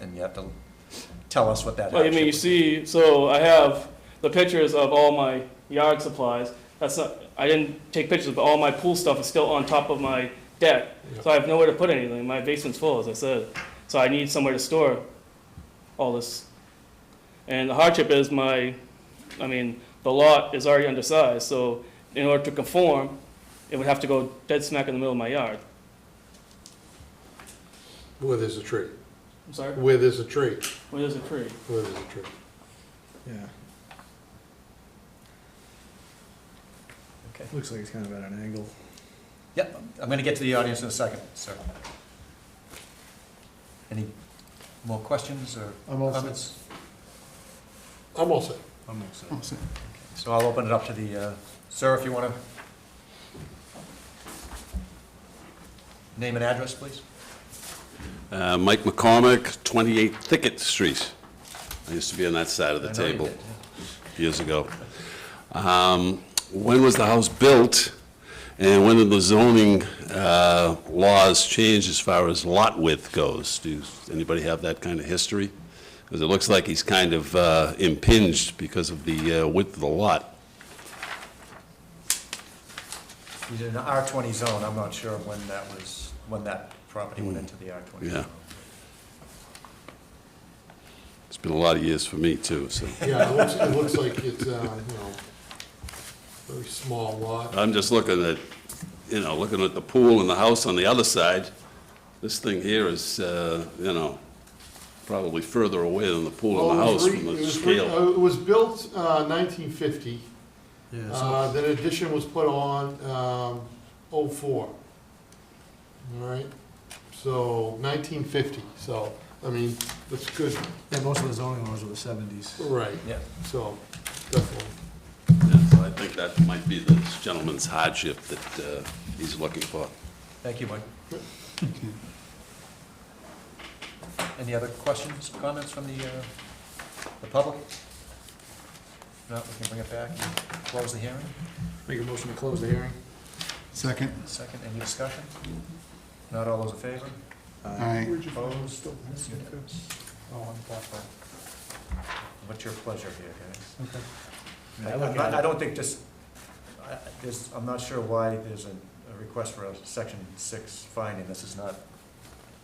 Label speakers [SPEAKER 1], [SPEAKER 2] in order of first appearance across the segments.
[SPEAKER 1] and you have to tell us what that.
[SPEAKER 2] Well, I mean,
[SPEAKER 1] hardship
[SPEAKER 2] you
[SPEAKER 1] would be.
[SPEAKER 2] see, so I have the pictures of all my yard supplies. That's not, I didn't take pictures, but all my pool stuff is still on top of my deck. So I have nowhere to put anything. My basement's full, as I said. So I need somewhere to store all this. And the hardship is my, I mean, the lot is already undersized, so in order to conform, it would have to go dead smack in the middle of my yard.
[SPEAKER 3] Where there's a tree,
[SPEAKER 2] I'm sorry?
[SPEAKER 3] where there's a tree,
[SPEAKER 2] Where there's a tree.
[SPEAKER 3] where there's a tree.
[SPEAKER 4] Yeah,
[SPEAKER 1] Okay.
[SPEAKER 4] looks like it's kind of at an angle.
[SPEAKER 1] Yep, I'm gonna get to the audience in a second, sir. Any more questions or
[SPEAKER 4] I'm all set.
[SPEAKER 1] comments?
[SPEAKER 3] I'm all set.
[SPEAKER 4] I'm excited.
[SPEAKER 1] So I'll open it up to the, uh, sir, if you wanna. Name and address, please.
[SPEAKER 5] Uh, Mike McCormick, 28 Thicket Street. I used to be on that side of the
[SPEAKER 1] I know you
[SPEAKER 5] table
[SPEAKER 1] did, yeah.
[SPEAKER 5] years ago. Um, When was the house built, and when did the zoning uh, laws change as far as lot width goes? Does anybody have that kind of history? Because it looks like he's kind of uh, impinged because of the uh, width of the lot.
[SPEAKER 1] He's in an R twenty zone, I'm not sure when that was, when that property went into the R twenty
[SPEAKER 5] Hmm. Yeah.
[SPEAKER 1] zone.
[SPEAKER 5] It's been a lot of years for me, too, so.
[SPEAKER 3] Yeah, it looks, it looks like it's, uh, you know, very small lot.
[SPEAKER 5] I'm just looking at, you know, looking at the pool and the house on the other side. This thing here is, uh, you know, probably further away than the pool and the
[SPEAKER 3] Well, Oh, it was
[SPEAKER 5] house
[SPEAKER 3] re-
[SPEAKER 5] from
[SPEAKER 3] it
[SPEAKER 5] the
[SPEAKER 3] was re-
[SPEAKER 5] scale.
[SPEAKER 3] uh, It was built uh, 1950,
[SPEAKER 4] Yeah, so
[SPEAKER 3] Uh, then addition was put on um, 04. All right, so 1950, so, I mean, that's good,
[SPEAKER 4] yeah, most of the zoning laws were the seventies.
[SPEAKER 3] right,
[SPEAKER 1] Yeah,
[SPEAKER 3] so, definitely.
[SPEAKER 5] Yeah, so I think that might be this gentleman's hardship that uh, he's looking for.
[SPEAKER 1] thank you, Mike. Any other questions, comments from the, uh, the public? If Not, we can bring it back and close the hearing.
[SPEAKER 4] Make a motion to close the hearing?
[SPEAKER 6] Second.
[SPEAKER 1] Second, any discussion? Not all those in favor?
[SPEAKER 6] Aye.
[SPEAKER 1] Opposed? It's unanimous. What's your pleasure here, guys? I- I'm not- I don't think just, I, I- there's, I'm not sure why there's a, a request for a section six finding. This is not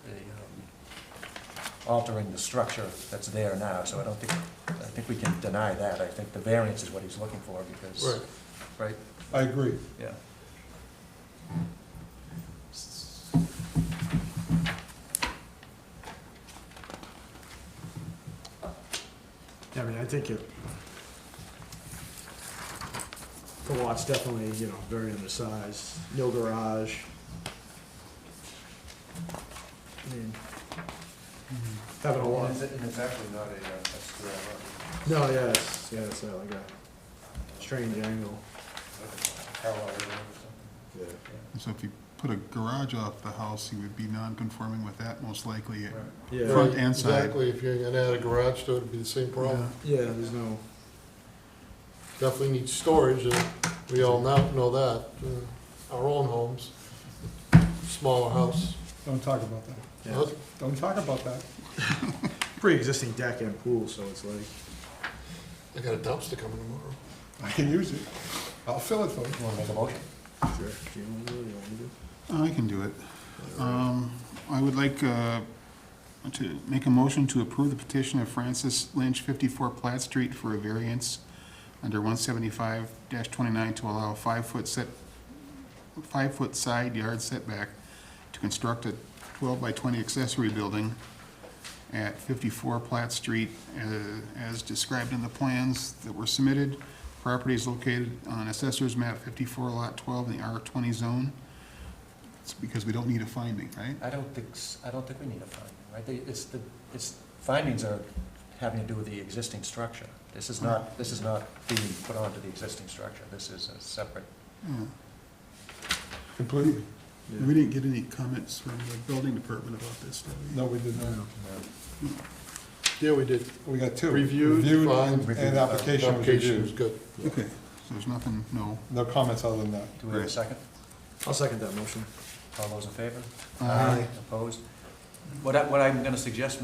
[SPEAKER 1] a, um, altering the structure that's there now, so I don't think, I think we can deny that. I think the variance is what he's looking for because,
[SPEAKER 3] Right,
[SPEAKER 1] right?
[SPEAKER 6] I agree.
[SPEAKER 1] Yeah.
[SPEAKER 4] I mean, I think it. The lot's definitely, you know, very undersized, no garage. I mean,
[SPEAKER 6] Mm-hmm.
[SPEAKER 4] having a lot,
[SPEAKER 1] it's actually not a, that's,
[SPEAKER 4] no, yeah, it's, yeah, it's uh, like a strange angle. Yeah.
[SPEAKER 6] So if you put a garage off the house, you would be non-conforming with that most likely.
[SPEAKER 4] Yeah,
[SPEAKER 6] Front and side.
[SPEAKER 3] exactly, if you're gonna add a garage door, it'd be the same problem.
[SPEAKER 4] yeah, there's no,
[SPEAKER 3] definitely need storage, and we all now know that, uh, our own homes, smaller house.
[SPEAKER 7] Don't talk about that.
[SPEAKER 4] yeah,
[SPEAKER 7] Don't talk about that.
[SPEAKER 4] pre-existing deck and pool, so it's like.
[SPEAKER 3] I got a dumpster coming tomorrow.
[SPEAKER 7] I can use it. I'll fill it for you.
[SPEAKER 1] You wanna make a motion?
[SPEAKER 4] Sure. Do you want to do it? You want me to?
[SPEAKER 6] I can do it. Um, I would like uh, to make a motion to approve the petition of Francis Lynch, 54 Platt Street, for a variance under 175-29 to allow a five-foot set, five-foot side yard setback to construct a 12 by 20 accessory building at 54 Platt Street, uh, as described in the plans that were submitted. Property is located on Assessor's Map 54, Lot 12, in the R20 zone. It's because we don't need a finding, right?
[SPEAKER 1] I don't think, s- I don't think we need a finding, right? They- It's the, it's, findings are having to do with the existing structure. This is not, this is not being put onto the existing structure. This is a separate,
[SPEAKER 6] Yeah.
[SPEAKER 7] Completely.
[SPEAKER 6] We didn't get any comments from the building department about this, did we?
[SPEAKER 7] No, we did not.
[SPEAKER 3] Yeah, we did.
[SPEAKER 7] We got two.
[SPEAKER 3] Reviewed,
[SPEAKER 7] Reviewed
[SPEAKER 3] fine.
[SPEAKER 7] and, and application was
[SPEAKER 3] Application was
[SPEAKER 7] reviewed.
[SPEAKER 3] good.
[SPEAKER 6] Okay, so there's nothing, no.
[SPEAKER 7] No comments other than that.
[SPEAKER 1] do we have a
[SPEAKER 6] Right.
[SPEAKER 1] second?
[SPEAKER 4] I'll second that motion.
[SPEAKER 1] All those in favor?
[SPEAKER 6] Aye.
[SPEAKER 1] Opposed? What I, what I'm gonna suggest,